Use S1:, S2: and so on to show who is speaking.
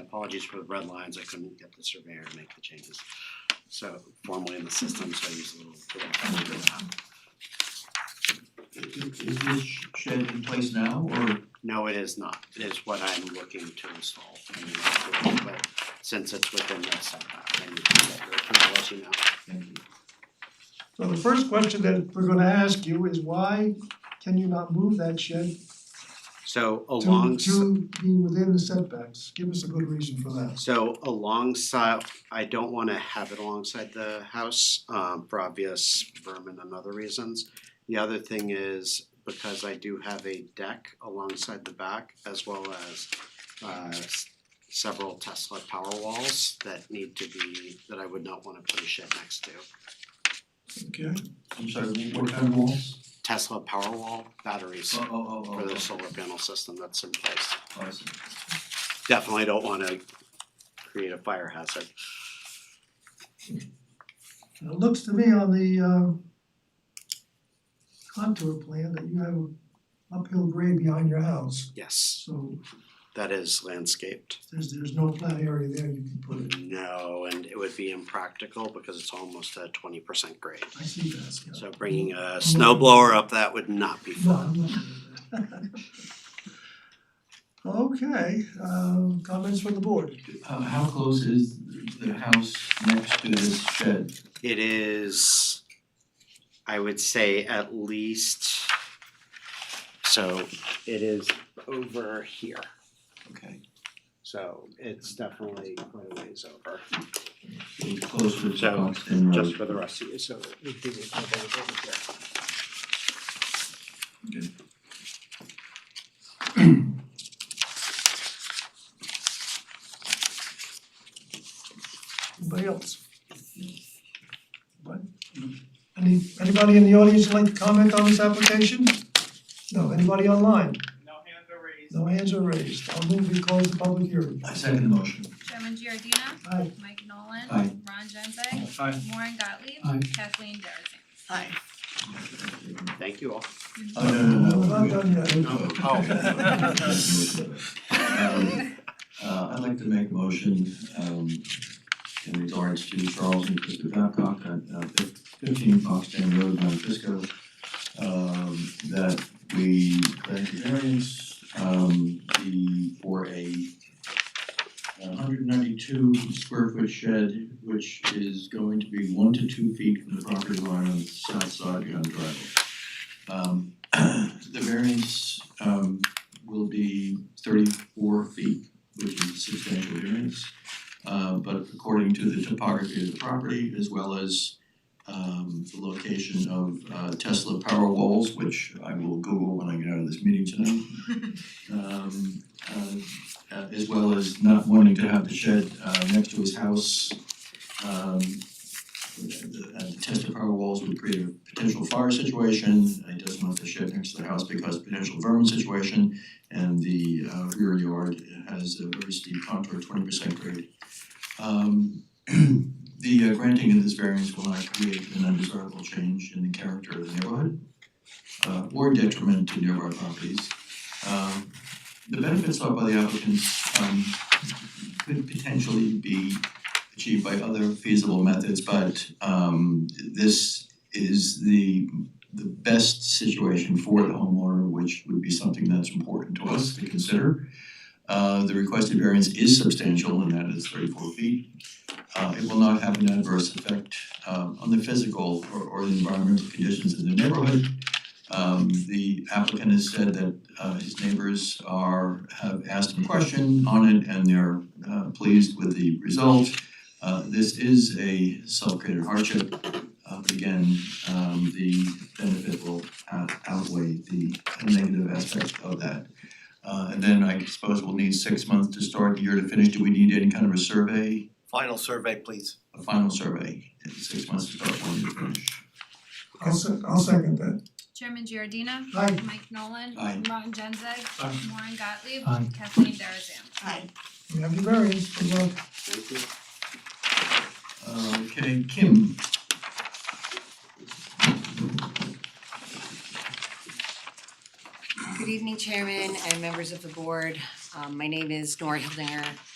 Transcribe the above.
S1: apologies for the red lines, I couldn't get the surveyor to make the changes. So formally in the system, so I use a little. little-
S2: Is is this shed in place now or?
S1: No, it is not, it is what I'm looking to install. I mean, but Since it's within that setback, I need to get your approval, as you know.
S2: Thank you.
S3: So the first question that we're gonna ask you is why can you not move that shed
S1: So
S3: to
S1: along.
S3: to be within the setbacks? Give us a good reason for that.
S1: So alongside, I don't wanna have it alongside the house, um, for obvious vermin and other reasons. The other thing is, because I do have a deck alongside the back, as well as, uh, s- several Tesla power walls that need to be, that I would not wanna put a shed next to.
S3: Okay,
S2: I'm sorry, what- what kind of walls?
S1: Tesla power wall batteries
S2: Oh, oh, oh, oh,
S1: for the solar panel system that's in place.
S2: oh, I see.
S1: Definitely don't wanna create a fire hazard.
S3: And it looks to me on the um contour plan that you have an uphill grade behind your house.
S1: Yes,
S3: So
S1: that is landscaped.
S3: there's there's no flat area there you can put it.
S1: No, and it would be impractical because it's almost a twenty percent grade.
S3: I see that, yeah.
S1: So bringing a snow blower up that would not be
S3: No,
S1: fun.
S3: I'm not gonna do that. Okay, um comments from the board?
S2: Uh how close is the house next to this shed?
S1: It is, I would say at least, so it is over here.
S2: Okay,
S1: So it's definitely quite a ways over,
S2: it's closer to
S1: So,
S2: Buxton Road.
S1: just for the rest of you, so we did it over here.
S2: Okay.
S3: Anybody else? Anybody? Any, anybody in the audience like to comment on this application? No, anybody online?
S4: No hands are raised.
S3: No hands are raised, I'll move we close the public hearing.
S2: I second the motion.
S5: Chairman Giordina.
S3: Aye.
S5: Mike Nolan.
S2: Aye.
S5: Ron Genzeg.
S4: Aye.
S5: Warren Gottlieb.
S2: Aye.
S5: Kathleen Darazan.
S1: Thank you all.
S2: Oh, no, no, no,
S3: We're not
S2: we-
S3: done yet.
S2: No. Um, Uh, I'd like to make a motion, um, in regards to Charles and Krista Babcock at, uh, fif- fifteen Foxton Road, Mount Fisco, um, that we grant the variance, um, the, for a hundred ninety-two square foot shed, which is going to be one to two feet from the property line on the south side of the driveway. Um, the variance, um, will be thirty-four feet, which is a substantial variance. Uh, but according to the topography of the property, as well as um the location of uh Tesla power walls, which I will Google when I get out of this meeting tonight. Um, uh, uh, as well as not wanting to have the shed uh next to his house. Um, the- uh, the Tesla power walls would create a potential fire situation, he doesn't want the shed next to the house because potential vermin situation and the uh rear yard has a very steep contour, twenty percent grade. Um the uh, granting of this variance will not create an undesirable change in the character of the neighborhood uh or detriment to nearby properties. Um the benefits sought by the applicants um could potentially be achieved by other feasible methods, but um this is the the best situation for the homeowner, which would be something that's important to us to consider. Uh, the requested variance is substantial and that is thirty-four feet. Uh, it will not have an adverse effect, um, on the physical or, or the environmental conditions in the neighborhood. Um, the applicant has said that, uh, his neighbors are, have asked him a question on it and they're, uh, pleased with the result. Uh, this is a self-created hardship, uh, but again, um the benefit will out- outweigh the negative aspect of that. Uh and then I suppose we'll need six months to start, year to finish, do we need any kind of a survey,
S6: Final survey, please.
S2: a final survey? Six months to start, one year to finish.
S3: I'll se- I'll second that.
S5: Chairman Giordina.
S3: Aye.
S5: Mike Nolan.
S2: Aye.
S5: Ron Genzeg. Warren Gottlieb.
S4: Aye.
S5: Kathleen Darazan.
S3: We have your variance, good luck.
S1: Thank you.
S2: Uh, Okay, Kim,
S7: Good evening, Chairman and members of the board. Um, my name is Nora Hildinger.